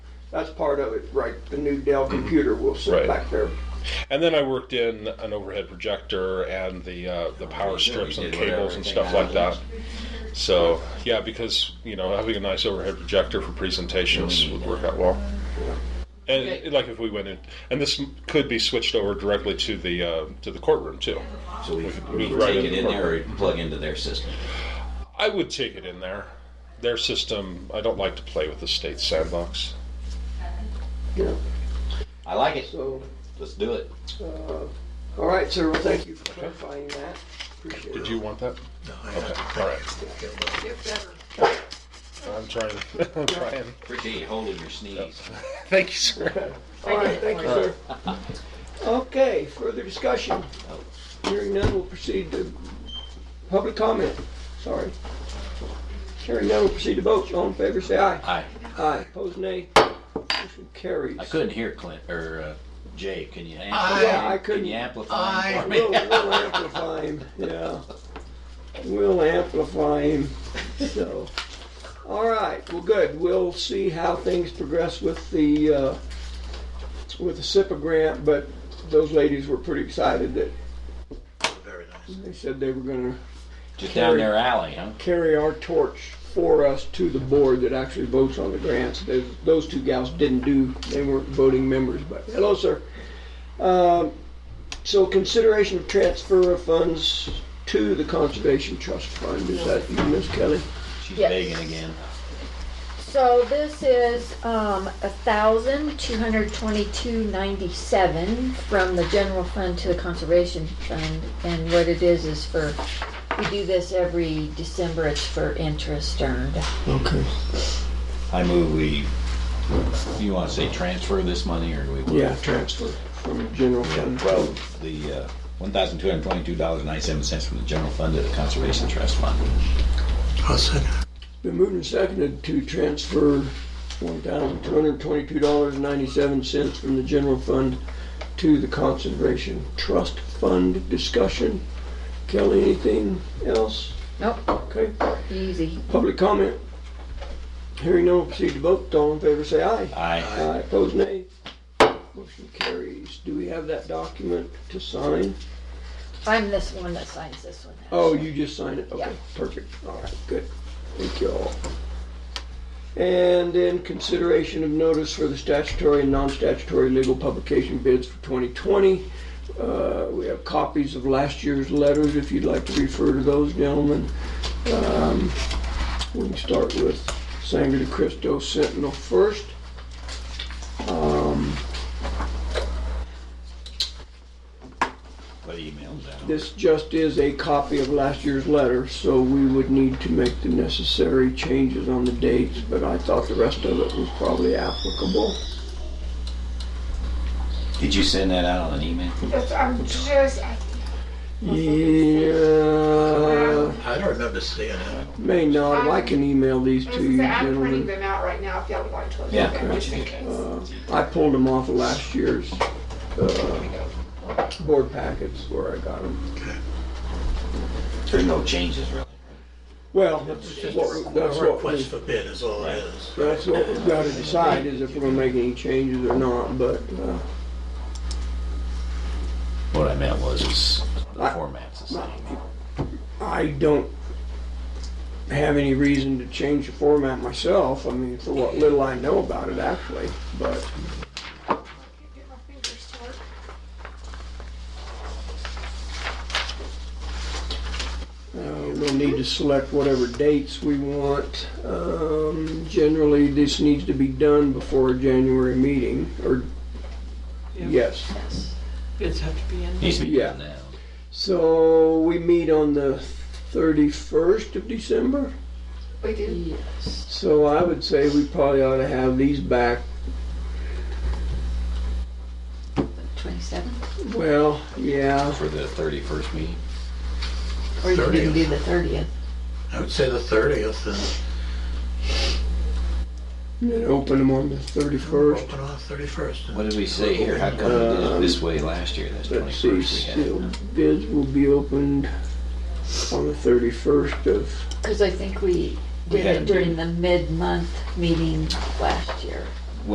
That's part of it, right? The new Dell computer will sit Right. back there. And then I worked in an overhead projector and the uh, the power strips and did whatever cables and thing stuff I like was that. So yeah, because you know having a nice overhead projector for presentations would work out well. And Okay. like if we went in, and this m- could be switched over directly to the uh, to the courtroom too. So we, we Move can right take in it in the there or plug into their system. I would take it in there. Their system, I don't like to play with the state sandbox. Yeah. I like it. So, Let's do it. all right, sir. Well, thank you for clarifying that. Appreciate Did it. you want that? No, I Okay, have all right. Get better. I'm trying. I'm trying. Appreciate you holding your sneeze. Thank you, sir. All right, thank you, sir. Okay, further discussion. Hearing none, we'll proceed to public comment. Sorry. Hearing none, we'll proceed to vote. All in favor, say aye. I Aye. Opposed, nay. Motion carries. I couldn't hear Clint or uh, Jay. Can you amplify? I- Yeah, I can couldn't. you amplify him I- for me? We'll, we'll amplify him, yeah. We'll amplify him, so. All right, well, good. We'll see how things progress with the, uh, with the SIPA grant, but those ladies were pretty excited that it. Very nice. they said they were gonna Just down their alley, huh? carry our torch for us to the board that actually votes on the grants. Those, those two gals didn't do, they weren't voting members, but hello, sir. Um, so consideration of transfer of funds to the Conservation Trust Fund, is that you, Ms. Kelly? She's Yes. begging again. So this is um, a thousand two hundred twenty-two ninety-seven from the general fund to the conservation fund. And what it is is for, we do this every December, it's for interest earned. Okay. I move we. You want to say transfer this money or do we? Yeah, transfer from the general Yeah, fund. well, the uh, one thousand two hundred twenty-two dollars and ninety-seven cents from the general fund to the conservation trust fund. I'll second it. Been moved and seconded to transfer one thousand two hundred twenty-two dollars and ninety-seven cents from the general fund to the conservation trust fund discussion. Kelly, anything else? Nope, Okay, easy. public comment. Hearing no, proceed to vote. All in favor, say aye. I Aye, opposed, nay. Motion carries. Do we have that document to sign? I'm this one that signs this one. Oh, you just sign it? Okay, Yeah. perfect. All right, good. Thank you all. And then consideration of notice for the statutory and non-statutory legal publication bids for 2020. Uh, We have copies of last year's letters, if you'd like to refer to those, gentlemen. Um, We can start with Sangre de Cristo Sentinel first. Um, What emails out? This just is a copy of last year's letter, so we would need to make the necessary changes on the dates, but I thought the rest of it was probably applicable. Did you send that out on an email? Yes, I'm just, I Yeah, I don't remember seeing it. may not, I can email these was to gonna you say, I'm printing gentlemen. them out right now if y'all would like to. look Yeah. at them, just in case. Uh, I pulled them off of last year's, uh, board packets where I got them. There's no changes really. Well, that's what, that's A what, we- request for bid is all it is. that's what we've gotta decide is if we're gonna make any changes or not, but, uh, What I meant was, is the I- format's the same. I don't have any reason to change the format myself. I mean, for what little I know about it, actually. But Get my fingers to work. uh, we'll need to select whatever dates we want. Um, generally, this needs to be done before a January meeting, or yes. Yes. Bids have to be in. Needs to be Yeah. done now. So we meet on the 31st of December. We do. Yes. So I would say we probably ought to have these back Twenty-seven? Well, yeah, For the thirty-first meeting, Or you can 30th. do the thirtieth. I would say the thirtieth and and then open them on the 31st. open on thirty-first. what did we say here? How come we did it this way last year? That's Uh, Let's see, twenty-first we had. it. sealed bids will be opened on the 31st of, Because I think we We did had a it during the mid-month meeting last year.